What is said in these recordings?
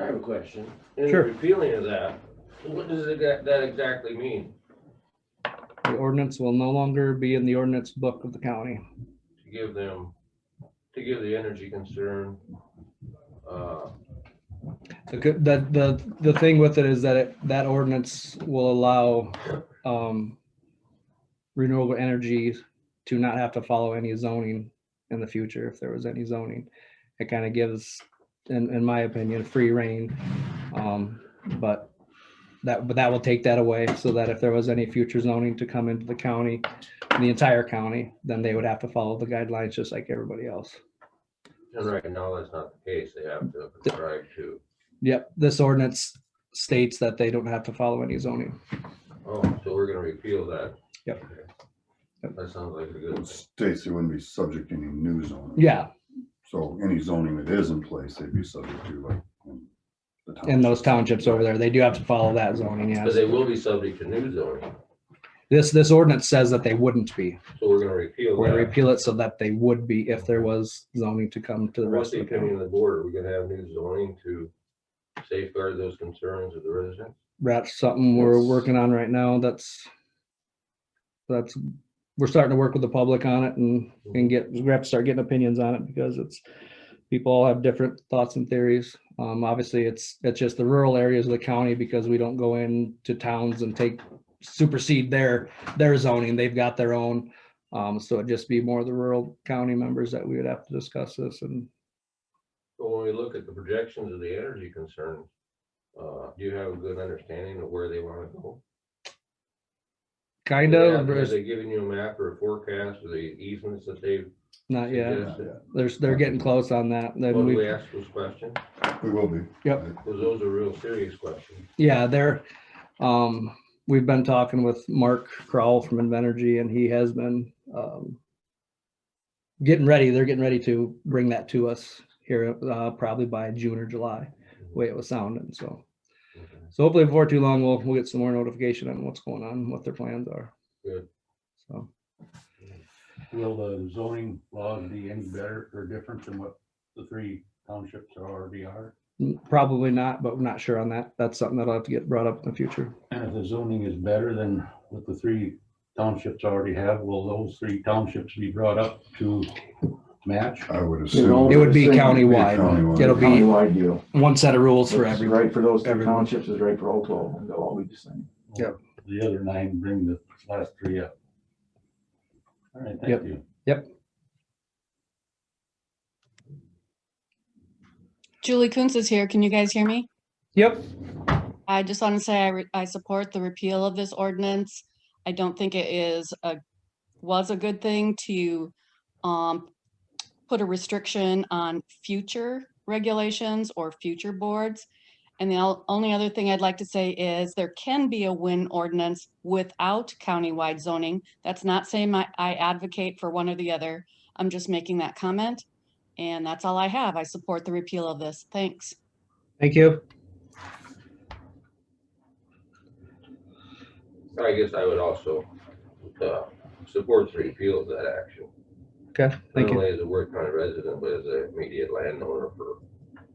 I have a question. In the Sure. Repealing of that, what does it that that exactly mean? The ordinance will no longer be in the ordinance book of the county. To give them, to give the energy concern, uh, The, good- the, the, the thing with it is that it, that ordinance will allow, um, renewable energy to not have to follow any zoning in the future, if there was any zoning. It kind of gives, in, in my opinion, free rein. Um, but that, but that will take that away so that if there was any future zoning to come into the county, the entire county, then they would have to follow the guidelines just like everybody else. and right now, that's not the case. They have to subscribe to. Yep, this ordinance states that they don't have to follow any zoning. Oh, so we're gonna repeal that. Yep. Okay. That sounds like a good thing. States they wouldn't be subject to any new zoning. Yeah, So any zoning that is in place, they'd be subject to like. in the in those townships. townships over there, they do have to follow that zoning, But yes. they will be subject to new zoning, This, this ordinance says that they wouldn't be. so we're gonna repeal We're gonna that. repeal it so that they would be if there was zoning to come to the What's rest the of the county. opinion of the board? Are we gonna have new zoning to safeguard those concerns of the residents? That's something we're working on right now. That's, that's, we're starting to work with the public on it and, and get, we have to start getting opinions on it because it's, people all have different thoughts and theories. Um, obviously, it's, it's just the rural areas of the county because we don't go into towns and take, supersede their, their zoning. They've got their own. Um, so it'd just be more of the rural county members that we would have to discuss this and But when we look at the projections of the energy concerns, uh, do you have a good understanding of where they wanna go? kind Yeah, of, Have there's they given you a map or a forecast of the easements that they've not yet. suggested? There's, they're getting close on that. Then Well, we- do we ask those questions? We will be. Yep. Because those are real serious questions. Yeah, they're, um, we've been talking with Mark Crowell from Invenergy and he has been, um, getting ready, they're getting ready to bring that to us here, uh, probably by June or July, way it was sounding, so. Okay. So hopefully before too long, we'll, we'll get some more notification on what's going on, what their plans are. Good. So, Will the zoning laws be any better or different than what the three townships are already are? n- probably not, but we're not sure on that. That's something that'll have to get brought up in the future. And if the zoning is better than what the three townships already have, will those three townships be brought up to match? I would know, assume. It would be It'll be countywide. countywide. It'll be Countywide deal. one set of rules for What's everyone. Right for those three everyone. townships is right for Oklahoma. They'll all be the same. Yep. The other nine bring the last three up. All right, Yep. thank you. Julie Kunz is here. Can you guys hear me? Yep, I just want to say I, re- I support the repeal of this ordinance. I don't think it is a, was a good thing to um, put a restriction on future regulations or future boards. And the ol- only other thing I'd like to say is there can be a WIN ordinance without countywide zoning. That's not saying I I advocate for one or the other. I'm just making that comment. And that's all I have. I support the repeal of this. Thanks. thank you. I guess I would also, uh, support the repeal of that action. Okay, thank Not you. only as a Ward County resident, but as an immediate landowner for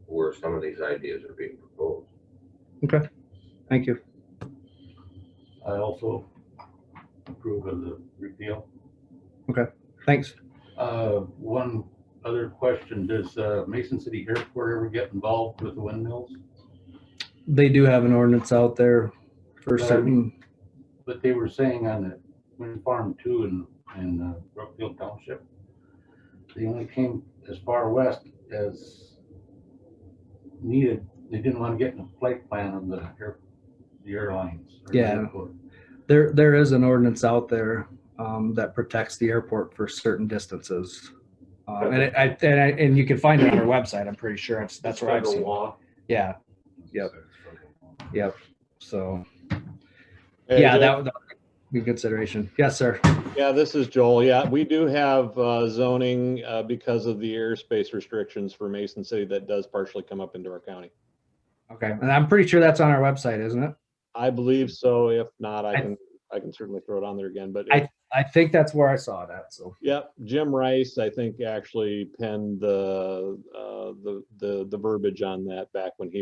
where some of these ideas are being proposed. Thank you. I also approve of the repeal. Thanks. Uh, One other question, does uh, Mason City Airport ever get involved with the windmills? They do have an ordinance out there for Right. certain, But they were saying on the wind farm two in, in uh, Brookfield Township, they only came as far west as needed. They didn't want to get in the flight plan of the air, the airlines. or the Yeah. airport. there, there is an ordinance out there um, that protects the airport for certain distances. Uh, And it- I, and I, and you can find it on our website, I'm pretty sure. It's- That's where I've oh Federal seen. it. law. Yeah, Yep. so, Hey, yeah, Joe. that would that would be a consideration. Yes, sir. Yeah, this is Joel. Yeah, we do have uh, zoning uh, because of the airspace restrictions for Mason City that does partially come up into our county. Okay, and I'm pretty sure that's on our website, isn't it? I believe so. If not, I I- can, I can certainly throw it on there again, but I- I think that's where I saw it at, so. yeah, Jim Rice, I think actually penned the, uh, the, the, the verbiage on that back when he